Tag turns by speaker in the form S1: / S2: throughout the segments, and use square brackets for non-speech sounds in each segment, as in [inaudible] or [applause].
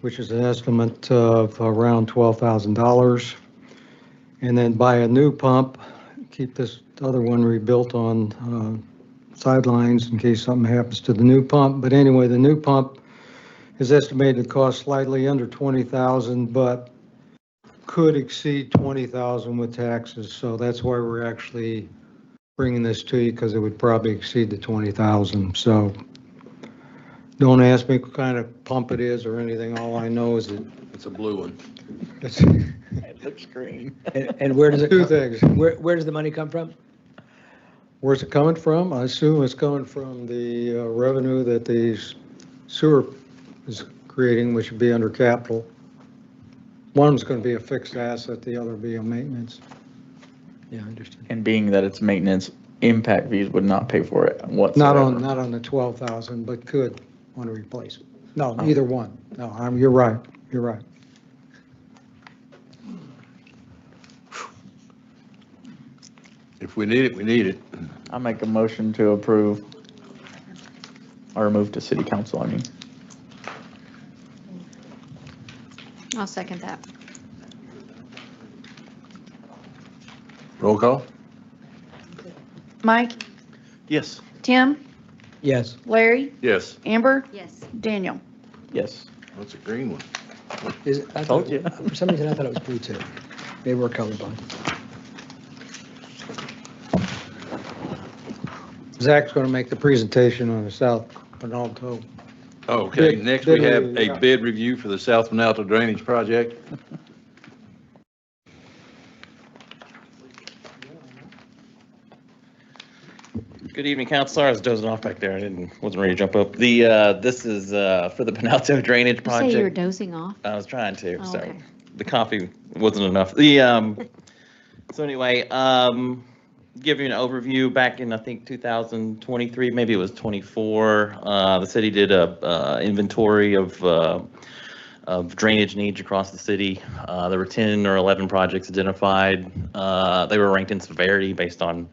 S1: which is an estimate of around $12,000. And then buy a new pump, keep this other one rebuilt on uh, sidelines in case something happens to the new pump. But anyway, the new pump is estimated to cost slightly under 20,000, but could exceed 20,000 with taxes. So that's why we're actually bringing this to you because it would probably exceed the 20,000. So don't ask me what kind of pump it is or anything. All I know is it,
S2: It's a blue one.
S1: it's
S3: It looks green.
S4: And and where does it,
S1: two
S4: come-
S1: things.
S4: where, where does the money come from?
S1: Where's it coming from? I assume it's coming from the uh, revenue that the sewer is creating, which would be under capital. One of them's going to be a fixed asset, the other will be a maintenance.
S4: Yeah, understood.
S3: And being that it's maintenance, impact fees would not pay for it
S1: Not
S3: whatsoever.
S1: on, not on the 12,000, but could want to replace it. No,
S4: Oh.
S1: neither one. No, I'm, you're right, you're right.
S2: If we need it, we need it.
S3: I make a motion to approve or move to city council, I mean.
S5: I'll second that.
S2: Roll call?
S6: Mike,
S2: Yes.
S6: Tim,
S4: Yes,
S6: Larry,
S2: Yes.
S6: Amber,
S5: Yes.
S6: Daniel.
S3: Yes.
S2: That's a green one.
S4: is, it- I
S3: Told
S4: thought,
S3: you.
S4: for some reason, I thought it was blue too. Maybe we're colorblind.
S1: Zach's going to make the presentation on the South Penalto.
S2: Okay,
S1: Bid-
S2: next we
S1: bid
S2: have
S1: review,
S2: a
S1: yeah.
S2: bid review for the South Manalto Drainage [clears throat] Project.
S7: Good evening, Counselor. I was dozing off back there. I didn't, wasn't ready to jump up. The, uh, this is, uh, for the [laughs] Penalto Drainage
S5: You say you were
S7: Project.
S5: dozing off?
S7: I was trying to,
S5: Oh,
S7: sorry
S5: okay.
S7: the coffee wasn't enough. The, um, [laughs] so anyway, um, give you an overview, back in, I think, 2023, maybe it was 24, uh, the city did a, uh, inventory of, uh, of drainage needs across the city. Uh, there were 10 or 11 projects identified. Uh, they were ranked in severity based on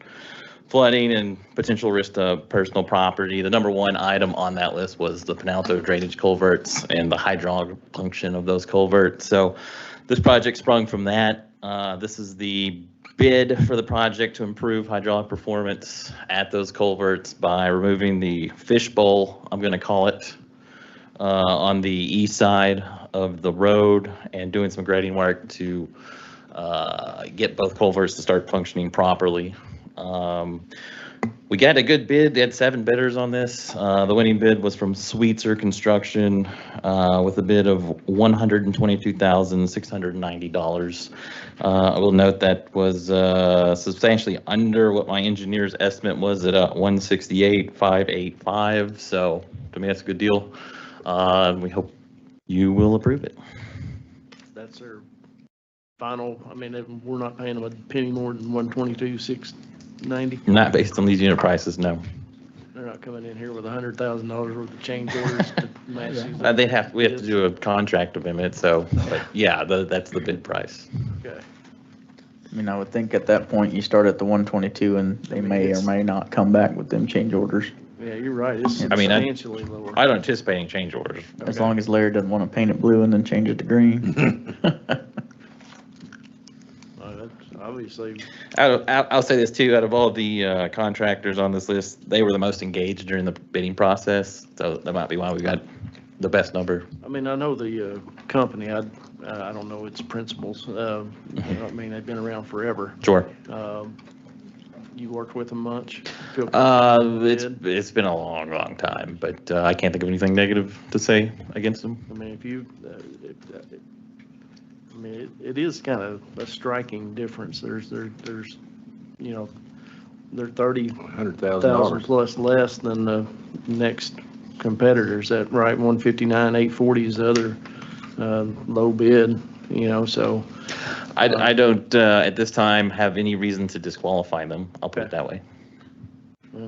S7: flooding and potential risk to personal property. The number one item on that list was the Penalto drainage culverts and the hydraulic function of those culverts. So, this project sprung from that. Uh, This is the bid for the project to improve hydraulic performance at those culverts by removing the fishbowl, I'm going to call it, uh, on the east side of the road and doing some grading work to uh, get both culverts to start functioning properly. Um, We got a good bid. They had seven bidders on this. Uh, The winning bid was from Sweetser Construction uh, with a bid of $122,690. Uh, I will note that was uh, substantially under what my engineer's estimate was at uh, 168,585. So to me, that's a good deal. Uh, We hope you will approve it.
S8: That's their final, I mean, they- we're not paying them a penny more than one twenty-two, six ninety.
S7: Not based on these unit prices, no.
S8: They're not coming in here with a hundred thousand dollars worth of change orders to match these.
S7: Uh, They'd have, we have to do a contract amendment, so, but yeah, tha- that's the bid price.
S8: Okay.
S3: I mean, I would think at that point, you start at the 122 and they may or may not come back with them change orders.
S8: Yeah, you're right. It's
S3: I
S7: mean, I-
S8: substantially lower.
S7: I don't anticipate any change orders.
S3: As long as Larry doesn't want to paint it blue and then change it to [laughs] green.
S8: Uh, that's Obviously,
S7: Out of, out- I'll say this too, out of all the uh, contractors on this list, they were the most engaged during the bidding process, so that might be why we got the best number.
S8: I mean, I know the uh, company, I, I don't know its
S7: [laughs]
S8: principles. Uh, I mean, they've been around forever.
S7: Sure.
S8: Um, You worked with them much? Feel-
S7: Uh, it's,
S8: Good.
S7: it's been a long, long time, but uh, I can't think of anything negative to say against them.
S8: I mean, if you, uh, if, uh, I mean, it it is kind of a striking difference. There's, there, there's, you know, they're thirty thousand
S2: $100,000.
S8: plus less than the next competitors. That right, one fifty-nine, eight forty is the other, uh, low bid, you know, so.
S7: I, I don't, uh, at this time, have any reason to disqualify them, I'll put it that way.
S8: Yeah.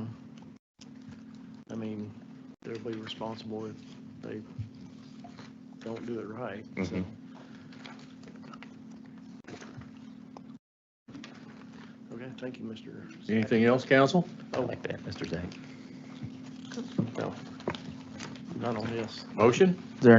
S8: I mean, they'll be responsible if they don't do it right.
S7: Mhm.
S8: Okay, thank you, Mr.
S2: Anything else, council?
S8: Oh.
S7: I like that, Mr. Zach.
S8: Not on this.
S2: Motion?